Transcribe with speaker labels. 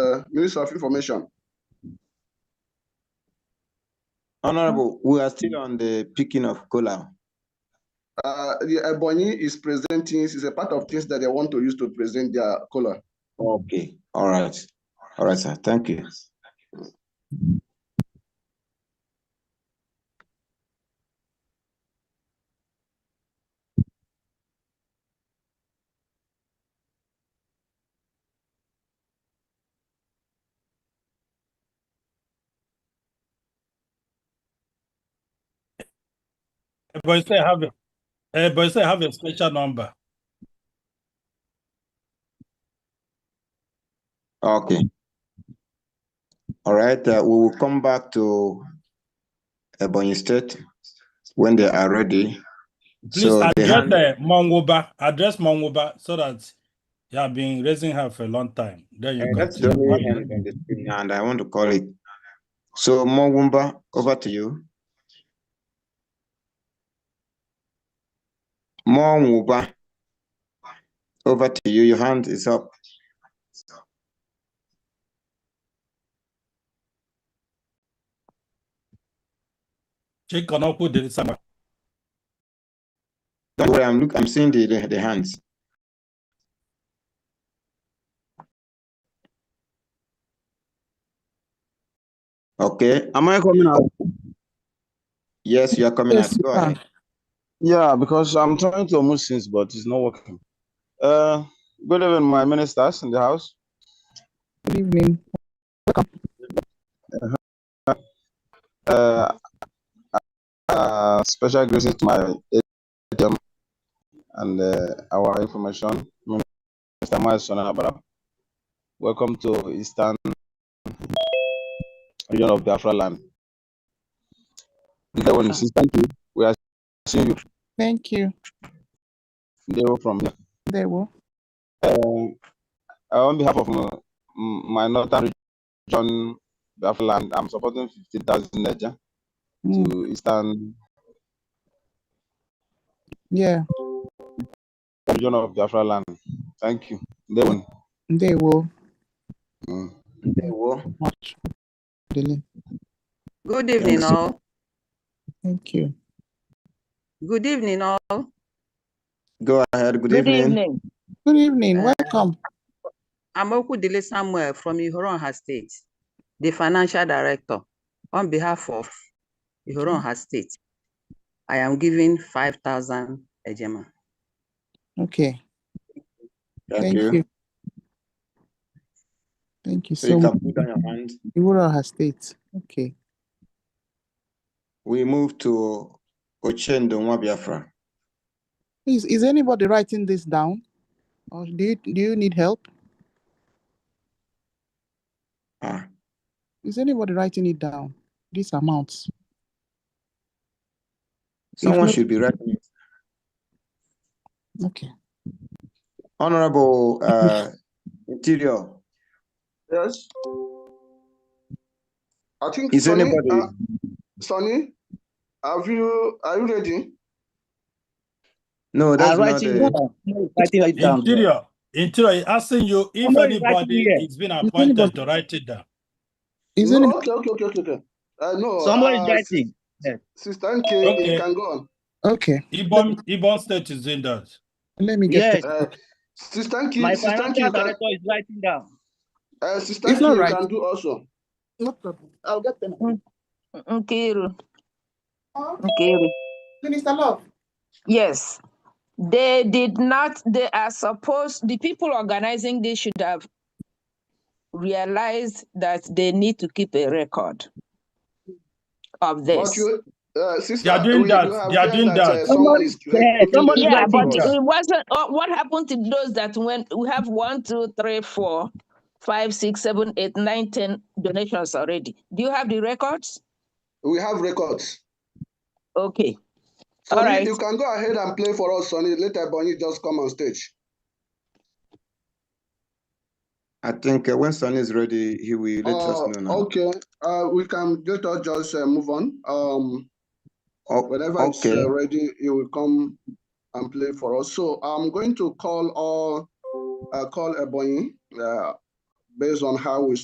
Speaker 1: uh, Minister of Information.
Speaker 2: Honorable, we are still on the picking of cola.
Speaker 1: Uh, the Ebonyi is presenting, is a part of things that they want to use to present their color.
Speaker 2: Okay, all right. All right, sir. Thank you.
Speaker 3: But you say I have, a, uh, but you say I have a special number.
Speaker 2: Okay. All right, uh, we will come back to Ebonyi State when they are ready.
Speaker 3: Please
Speaker 2: So they
Speaker 3: address
Speaker 2: hand-
Speaker 3: uh, Mongoba. Address Mongoba so that you have been raising her for a long time. Then you
Speaker 2: Uh, That's the
Speaker 3: continue.
Speaker 2: only hand on the screen, and I want to call it. So Mongwumba, over to you. Mongwumba, over to you. Your hand is up.
Speaker 3: She cannot put the summer.
Speaker 2: Don't worry, I'm look, I'm seeing the, the, the hands. Okay,
Speaker 4: Am I coming out?
Speaker 2: yes, you are coming
Speaker 4: Yes,
Speaker 2: out. Go
Speaker 4: sir.
Speaker 2: ahead.
Speaker 4: Yeah, because I'm trying to move since, but it's not working. Uh, good evening, my ministers in the house.
Speaker 5: Good evening.
Speaker 4: Uh, uh, special greetings to my ATM and uh, our information minister, Mason Abara. Welcome to Eastern region of Biafra land. That one is thank you. We are seeing you
Speaker 5: Thank you.
Speaker 4: They were from here.
Speaker 5: They will.
Speaker 4: Um, uh, on behalf of my, my northern region, Biafra land, I'm supporting 15,000 Niger
Speaker 5: Mm,
Speaker 4: to eastern
Speaker 5: yeah,
Speaker 4: region of Biafra land. Thank you. They won.
Speaker 5: they will.
Speaker 4: Mm.
Speaker 5: Much. Really.
Speaker 6: Good evening,
Speaker 4: so-
Speaker 6: all.
Speaker 5: Thank you.
Speaker 6: Good evening, all.
Speaker 2: Go ahead. Good
Speaker 7: Good
Speaker 2: evening.
Speaker 7: evening.
Speaker 5: Good evening. Welcome.
Speaker 6: I'm Okudile Samuel from Ihoronha State, the Financial Director. On behalf of Ihoronha State, I am giving 5,000 Ejema.
Speaker 5: Okay.
Speaker 2: Thank you.
Speaker 5: Thank you
Speaker 2: So you
Speaker 5: so
Speaker 2: can
Speaker 5: much.
Speaker 2: put down your hand.
Speaker 5: Iwura has state. Okay.
Speaker 2: We move to Ochendo Biafra.
Speaker 5: Is is anybody writing this down? Or do you do you need help?
Speaker 2: Ah,
Speaker 5: Is anybody writing it down? These amounts.
Speaker 2: someone
Speaker 5: not-
Speaker 2: should be writing it.
Speaker 5: Okay.
Speaker 2: Honorable, uh, Interior,
Speaker 1: Yes. I think.
Speaker 2: is
Speaker 1: Sonny,
Speaker 2: anybody?
Speaker 1: uh, Sonny, have you, are you ready?
Speaker 2: No, that's
Speaker 7: I'm
Speaker 2: not
Speaker 7: writing
Speaker 2: the,
Speaker 7: down. No, writing it down.
Speaker 3: Interior. Interior asking you if
Speaker 7: Somebody writing
Speaker 3: anybody
Speaker 7: here.
Speaker 3: is being appointed to write it down.
Speaker 5: Is
Speaker 1: No,
Speaker 5: any
Speaker 1: Okay, okay, okay, okay, okay. Uh, no.
Speaker 7: Somebody
Speaker 1: uh,
Speaker 7: is writing.
Speaker 1: Sister Nkem,
Speaker 3: Okay.
Speaker 1: you can go on.
Speaker 5: okay.
Speaker 3: Ibom, Ibom State is doing that.
Speaker 5: Let me get
Speaker 7: Yes.
Speaker 5: the-
Speaker 1: Uh, Sister
Speaker 7: My
Speaker 1: Nkem, Sister Nkem,
Speaker 7: financial
Speaker 1: you can,
Speaker 7: director is writing down.
Speaker 1: uh, Sister
Speaker 5: It's not
Speaker 1: Nkem, you
Speaker 5: right.
Speaker 1: can do also.
Speaker 5: no problem. I'll get them.
Speaker 8: Mm,
Speaker 7: Nkiru. Nkiru.
Speaker 5: Minister Love.
Speaker 8: Yes. They did not, they are supposed, the people organizing this should have realized that they need to keep a record
Speaker 1: But
Speaker 8: of this.
Speaker 1: you, uh, Sister.
Speaker 3: They are doing
Speaker 1: we-
Speaker 3: that.
Speaker 1: you have
Speaker 3: They are
Speaker 1: heard
Speaker 3: doing
Speaker 1: uh,
Speaker 3: that.
Speaker 1: Someone is.
Speaker 7: Yeah, somebody is
Speaker 8: Yeah,
Speaker 7: writing
Speaker 8: but
Speaker 7: down.
Speaker 8: it wasn't, uh, what happened to those that when we have one, two, three, four, five, six, seven, eight, nine, ten donations already? Do you have the records?
Speaker 1: We have records.
Speaker 8: Okay.
Speaker 1: Sonny,
Speaker 8: Alright.
Speaker 1: you can go ahead and play for us, Sonny. Later, Bonnie just come on stage.
Speaker 2: I think uh, when Sonny is ready, he will let us
Speaker 1: Uh,
Speaker 2: know now.
Speaker 1: Okay, uh, we can let us just uh, move on. Um,
Speaker 2: O-
Speaker 1: whenever it's
Speaker 2: Okay,
Speaker 1: uh, ready, you will come and play for us. So I'm going to call all, uh, call Ebony, uh, based on how we